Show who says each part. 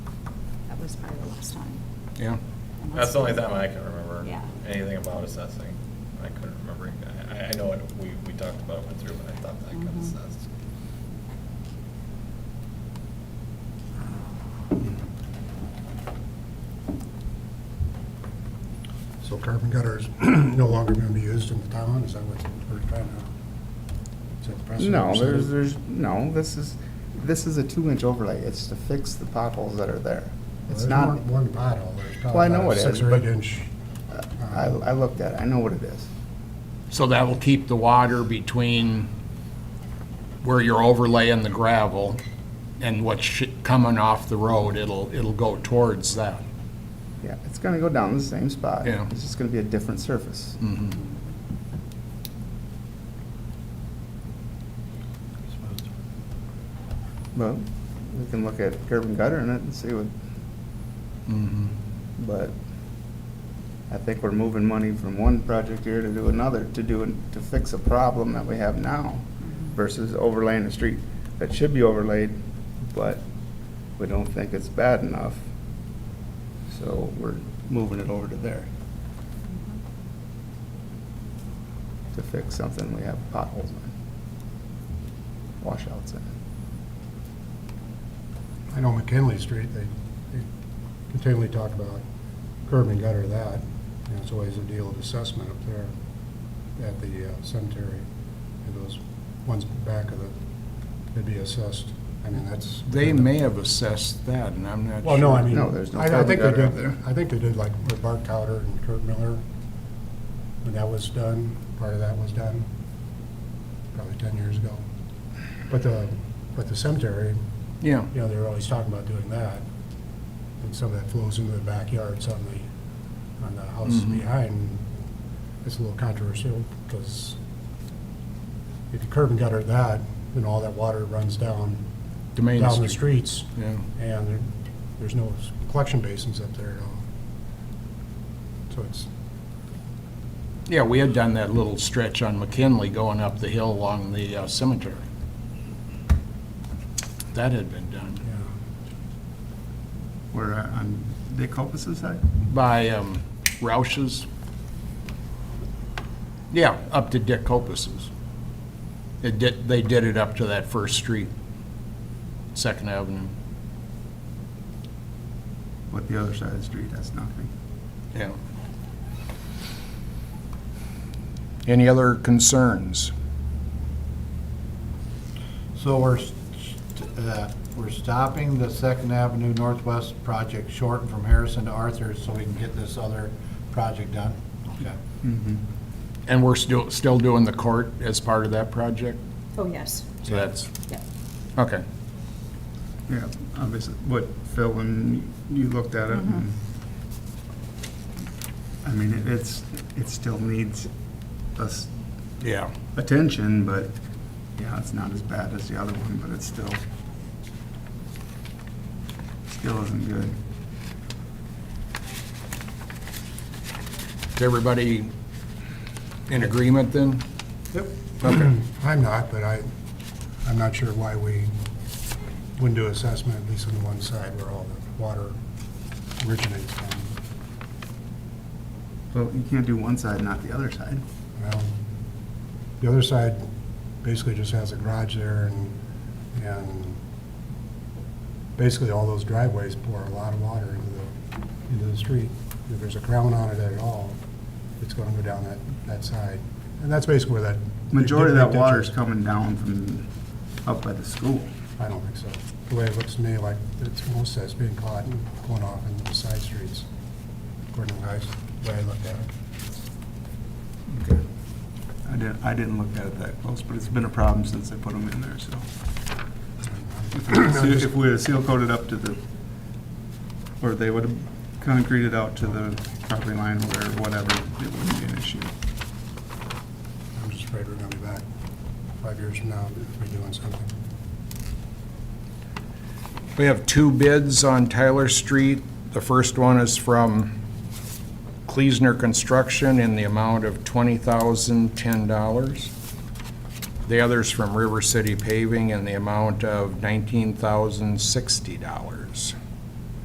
Speaker 1: was probably the last time.
Speaker 2: Yeah.
Speaker 1: Unless-
Speaker 3: That's the only time I can remember
Speaker 1: Yeah.
Speaker 3: anything about assessing. I couldn't remember. I, I know what we, we talked about, it, went through, but I thought that got
Speaker 1: Mhm.
Speaker 3: assessed.
Speaker 4: So carbon gutter is no longer going to be used in the town, is that what we're trying to? is that the precedent
Speaker 5: No,
Speaker 4: we're
Speaker 5: there's,
Speaker 4: setting?
Speaker 5: there's, no, this is, this is a two-inch overlay. It's to fix the potholes that are there.
Speaker 4: Well,
Speaker 5: It's
Speaker 4: there's
Speaker 5: not,
Speaker 4: one- One pothole, there's
Speaker 5: Well, I
Speaker 4: probably
Speaker 5: know
Speaker 4: about
Speaker 5: it
Speaker 4: a
Speaker 5: is,
Speaker 4: six or
Speaker 5: but-
Speaker 4: eight inch.
Speaker 5: I, I looked at it, I know what it is.
Speaker 2: So that will keep the water between where you're overlaying the gravel and what's sh- coming off the road, it'll, it'll go towards that.
Speaker 5: Yeah, it's gonna go down the same spot.
Speaker 2: Yeah.
Speaker 5: It's just gonna be a different surface.
Speaker 2: Mm-hmm.
Speaker 5: Well, we can look at curb and gutter in it and see what, but I think we're moving money from one project here to do another, to do, to fix a problem that we have now versus overlaying a street that should be overlaid, but we don't think it's bad enough. So we're moving it over to there to fix something we have potholes in, washouts in.
Speaker 4: I know McKinley Street, they they continually talk about curb and gutter that, and it's always a deal of assessment up there at the uh, cemetery. And those ones back of the, they'd be assessed, I mean, that's.
Speaker 2: They may have assessed that, and I'm not sure.
Speaker 4: Well, no, I mean,
Speaker 5: No, there's no
Speaker 4: I I think they
Speaker 5: curb and gutter up
Speaker 4: did, I think they did like with Bart Cowder and Kurt Miller, when that was done, part of that was done, probably 10 years ago. But the, but the cemetery,
Speaker 2: Yeah,
Speaker 4: you know, they were always talking about doing that, and some of that flows into the backyards on the, on the houses
Speaker 2: Mhm.
Speaker 4: behind. It's a little controversial, because if you curb and gutter that, then all that water runs down,
Speaker 2: the main
Speaker 4: down the
Speaker 2: street.
Speaker 4: streets,
Speaker 2: Yeah,
Speaker 4: and there, there's no s- collection basins up there at all. So it's,
Speaker 2: yeah, we had done that little stretch on McKinley going up the hill along the uh, cemetery. That had been done
Speaker 4: yeah,
Speaker 5: Where, uh, on the Copa's side?
Speaker 2: by um, Roush's. Yeah, up to Dick Copus's. It did, they did it up to that first street, Second Avenue,
Speaker 5: But the other side of the street, that's nothing.
Speaker 2: yeah. Any other concerns?
Speaker 6: So we're, st- uh, we're stopping the Second Avenue Northwest project short from Harrison to Arthur so we can get this other project done? Okay.
Speaker 2: And we're still, still doing the court as part of that project?
Speaker 1: Oh, yes,
Speaker 2: So that's,
Speaker 1: yeah.
Speaker 2: okay.
Speaker 5: Yeah, obviously, what Phil, when you looked at it, and- I mean, it- it's, it still needs us
Speaker 2: Yeah.
Speaker 5: attention, but, yeah, it's not as bad as the other one, but it's still, still isn't good.
Speaker 2: Is everybody in agreement then?
Speaker 4: I'm not, but I, I'm not sure why we wouldn't do assessment, at least on the one side where all the water originates from.
Speaker 5: Well, you can't do one side, not the other side.
Speaker 4: Well, the other side basically just has a garage there and, and basically all those driveways pour a lot of water into the, into the street. If there's a crown on it at all, it's gonna go down that, that side. And that's basically where that.
Speaker 5: Majority of that water's
Speaker 4: coming.
Speaker 5: coming down from up by the school.
Speaker 4: I don't think so. The way it looks to me, like, it's most of it's being caught and going off into the side streets, according to the guys, the way I looked at it.
Speaker 5: I didn't, I didn't look at it that close, but it's been a problem since they put them in there, so. If we had seal- If we had seal coated up to the, or they would have concreted out to the property line or whatever, it wouldn't be an issue.
Speaker 4: I'm just afraid we're gonna be back five years from now if we're doing something.
Speaker 2: We have two bids on Tyler Street. The first one is from Kleesner Construction in the amount of $20,010. The other's from River City Paving in the amount of $19,060.